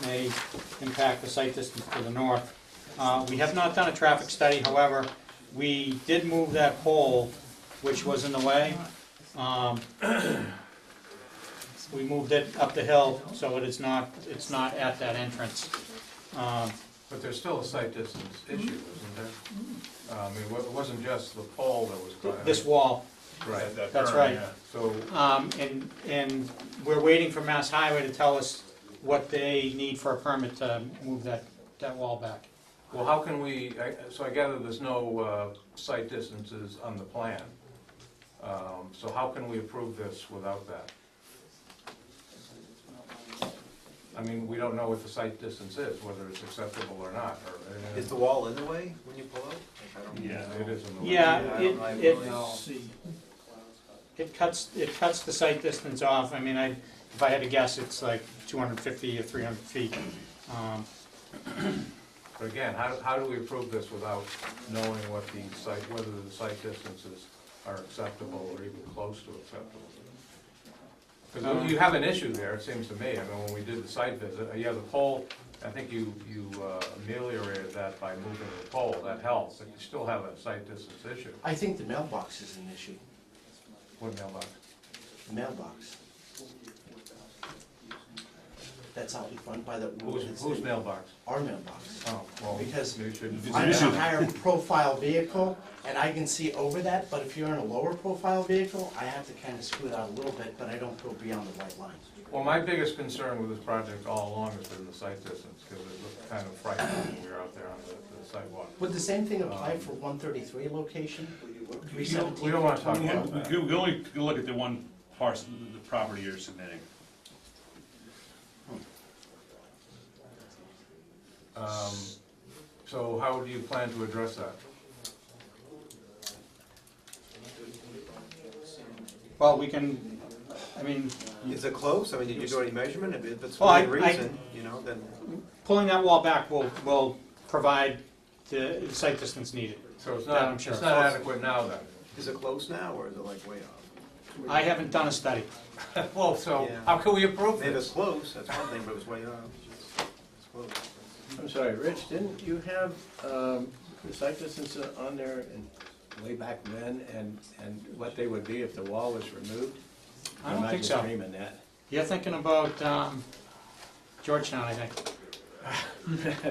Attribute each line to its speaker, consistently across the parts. Speaker 1: may impact the site distance to the north. Uh, We have not done a traffic study, however, we did move that pole, which was in the way. Um, We moved it up the hill, so it is not, it's not at that entrance. Um,
Speaker 2: But there's still a site distance
Speaker 1: Mm-hmm.
Speaker 2: issue, isn't there? Uh, I mean, wa- it wasn't just the pole that was
Speaker 1: th-
Speaker 2: cut.
Speaker 1: This wall,
Speaker 2: Right,
Speaker 1: that's right.
Speaker 2: so,
Speaker 1: Um, and, and we're waiting for Mass Highway to tell us what they need for a permit to move that, that wall back.
Speaker 2: well, how can we, I- so I gather there's no uh, site distances on the plan. Um, So how can we approve this without that? I mean, we don't know what the site distance is, whether it's acceptable or not, or. and
Speaker 3: Is the wall in the way when you pull out? Like, I don't
Speaker 4: Yeah.
Speaker 3: know.
Speaker 2: It is in the. way.
Speaker 1: Yeah,
Speaker 3: I don't- I
Speaker 1: it,
Speaker 3: really
Speaker 1: it,
Speaker 3: don't.
Speaker 1: it cuts, it cuts the site distance off, I mean, I, if I had to guess, it's like two hundred fifty or three hundred feet. Um,
Speaker 2: But again, how, how do we approve this without knowing what the site, whether the site distances are acceptable or even close to acceptable? Because you have an issue there, it seems to me, I mean, when we did the site visit, uh, yeah, the pole, I think you, you uh, ameliorated that by moving the pole, that helps, but you still have a site distance issue.
Speaker 5: I think the mailbox is an issue,
Speaker 2: What mailbox?
Speaker 5: the mailbox. That's out in front by the.
Speaker 2: Whose, whose mailbox?
Speaker 5: Our mailbox.
Speaker 2: Oh, well,
Speaker 5: Because
Speaker 2: you should.
Speaker 5: I'm in a higher profile vehicle and I can see over that, but if you're in a lower profile vehicle, I have to kind of scoot out a little bit, but I don't go beyond the white line.
Speaker 2: Well, my biggest concern with this project all along has been the site distance, because it looked kind of frightening when we were out there on the- the sidewalk.
Speaker 5: Would the same thing apply for one thirty-three location?
Speaker 2: We don't, we don't wanna talk
Speaker 4: We
Speaker 2: about
Speaker 4: we
Speaker 2: that.
Speaker 4: can we can only look at the one parcel, the property you're submitting.
Speaker 2: Um, So how do you plan to address that?
Speaker 1: Well, we can, I mean,
Speaker 3: Is it close? I mean, did you do any measurement? If if it's
Speaker 1: Well, I-
Speaker 3: within
Speaker 1: I-
Speaker 3: reason, you know, then.
Speaker 1: pulling that wall back will, will provide the site distance needed.
Speaker 2: So it's
Speaker 1: That I'm
Speaker 2: not,
Speaker 1: sure.
Speaker 2: it's not adequate now then?
Speaker 3: Is it close now, or is it like way off?
Speaker 1: I haven't done a study.
Speaker 2: Well, so
Speaker 3: Yeah.
Speaker 2: how can we approve
Speaker 3: If it's
Speaker 2: this?
Speaker 3: close, that's one thing, but it's way off. It's close.
Speaker 6: I'm sorry, Rich, didn't you have um, the site distance on there in- way back when and, and what they would be if the wall was removed?
Speaker 1: I don't
Speaker 6: Am
Speaker 1: think
Speaker 6: just
Speaker 1: so.
Speaker 6: dreaming that?
Speaker 1: You're thinking about, um, Georgetown, I think,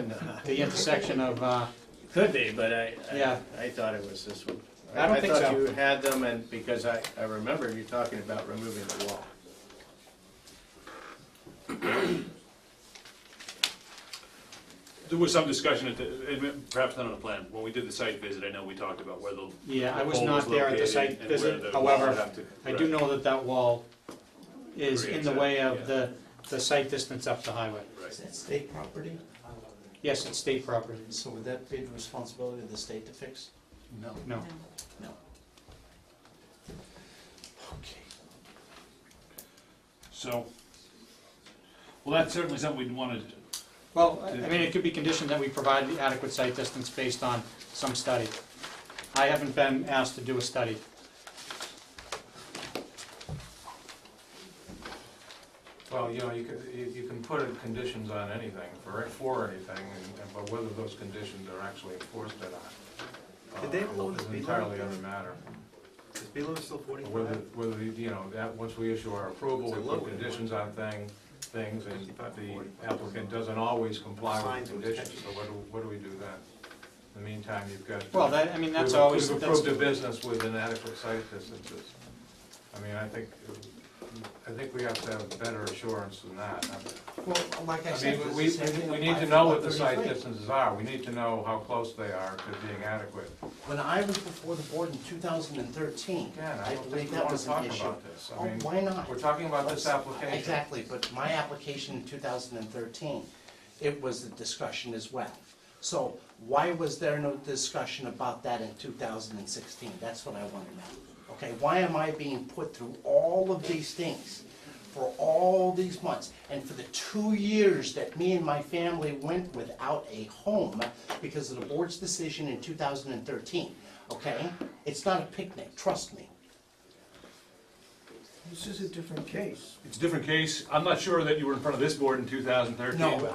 Speaker 6: Nah.
Speaker 1: the intersection of, uh,
Speaker 6: Could be, but I,
Speaker 1: Yeah.
Speaker 6: I, I thought it was this one.
Speaker 1: I don't think so.
Speaker 6: thought you had them and, because I, I remember you talking about removing the wall.
Speaker 4: There was some discussion, at the- and perhaps not on the plan, when we did the site visit, I know we talked about where the.
Speaker 1: yeah, I was
Speaker 4: pole
Speaker 1: not there at the
Speaker 4: located
Speaker 1: site
Speaker 4: and where the
Speaker 1: visit,
Speaker 4: wall would
Speaker 1: however,
Speaker 4: have to-
Speaker 1: I do
Speaker 4: right.
Speaker 1: know that that wall is in the
Speaker 4: Creates a-
Speaker 1: way of
Speaker 4: yeah.
Speaker 1: the, the site distance up the highway.
Speaker 4: Right.
Speaker 5: Is that state property?
Speaker 1: Yes, it's state property.
Speaker 5: So would that be the responsibility of the state to fix?
Speaker 1: No. No.
Speaker 5: No. Okay.
Speaker 4: So, well, that's certainly something we'd want to,
Speaker 1: Well, I I mean, it could be conditioned that we provide the adequate site distance based on some study. I haven't been asked to do a study.
Speaker 2: Well, you know, you could, you you can put in conditions on anything, for, for anything, and- and- but whether those conditions are actually enforced or not. uh,
Speaker 3: Did they have a lower
Speaker 2: is
Speaker 3: speed
Speaker 2: Entirely
Speaker 3: limit?
Speaker 2: other matter.
Speaker 3: Is Beal still
Speaker 2: Whether,
Speaker 3: forty-five?
Speaker 2: whether, the- you know, that, once we issue our approval,
Speaker 3: It's a
Speaker 2: we
Speaker 3: low
Speaker 2: put
Speaker 3: one.
Speaker 2: conditions on thing, things, and the
Speaker 3: 55.
Speaker 2: applicant doesn't always comply with
Speaker 3: Signs
Speaker 2: the
Speaker 3: and
Speaker 2: conditions, so
Speaker 3: sketches.
Speaker 2: what do, what do we do then? In the meantime, you've got.
Speaker 1: Well, that, I mean, that's
Speaker 2: We've-
Speaker 1: always,
Speaker 2: We've
Speaker 1: that's,
Speaker 2: approved a business with inadequate site distances. I mean, I think, I think we have to have better assurance than that.
Speaker 5: Well, like I
Speaker 2: I
Speaker 5: said,
Speaker 2: mean,
Speaker 5: does
Speaker 2: we,
Speaker 5: the same thing
Speaker 2: we need
Speaker 5: apply
Speaker 2: to
Speaker 5: for
Speaker 2: know what the
Speaker 5: 133?
Speaker 2: site distances are, we need to know how close they are to being adequate.
Speaker 5: When I was before the board in two thousand and thirteen,
Speaker 2: Again, I
Speaker 5: I
Speaker 2: don't
Speaker 5: believe
Speaker 2: think we
Speaker 5: that
Speaker 2: want
Speaker 5: was
Speaker 2: to
Speaker 5: an
Speaker 2: talk
Speaker 5: issue.
Speaker 2: about this.
Speaker 5: Oh,
Speaker 2: I mean,
Speaker 5: why not?
Speaker 2: we're talking about this application.
Speaker 5: Exactly, but my application in two thousand and thirteen, it was a discussion as well. So why was there no discussion about that in two thousand and sixteen? That's what I want to know. Okay, why am I being put through all of these things for all these months? And for the two years that me and my family went without a home because of the board's decision in two thousand and thirteen, okay? It's not a picnic, trust me.
Speaker 6: This is a different case.
Speaker 4: it's a different case, I'm not sure that you were in front of this board in 2013.
Speaker 5: No,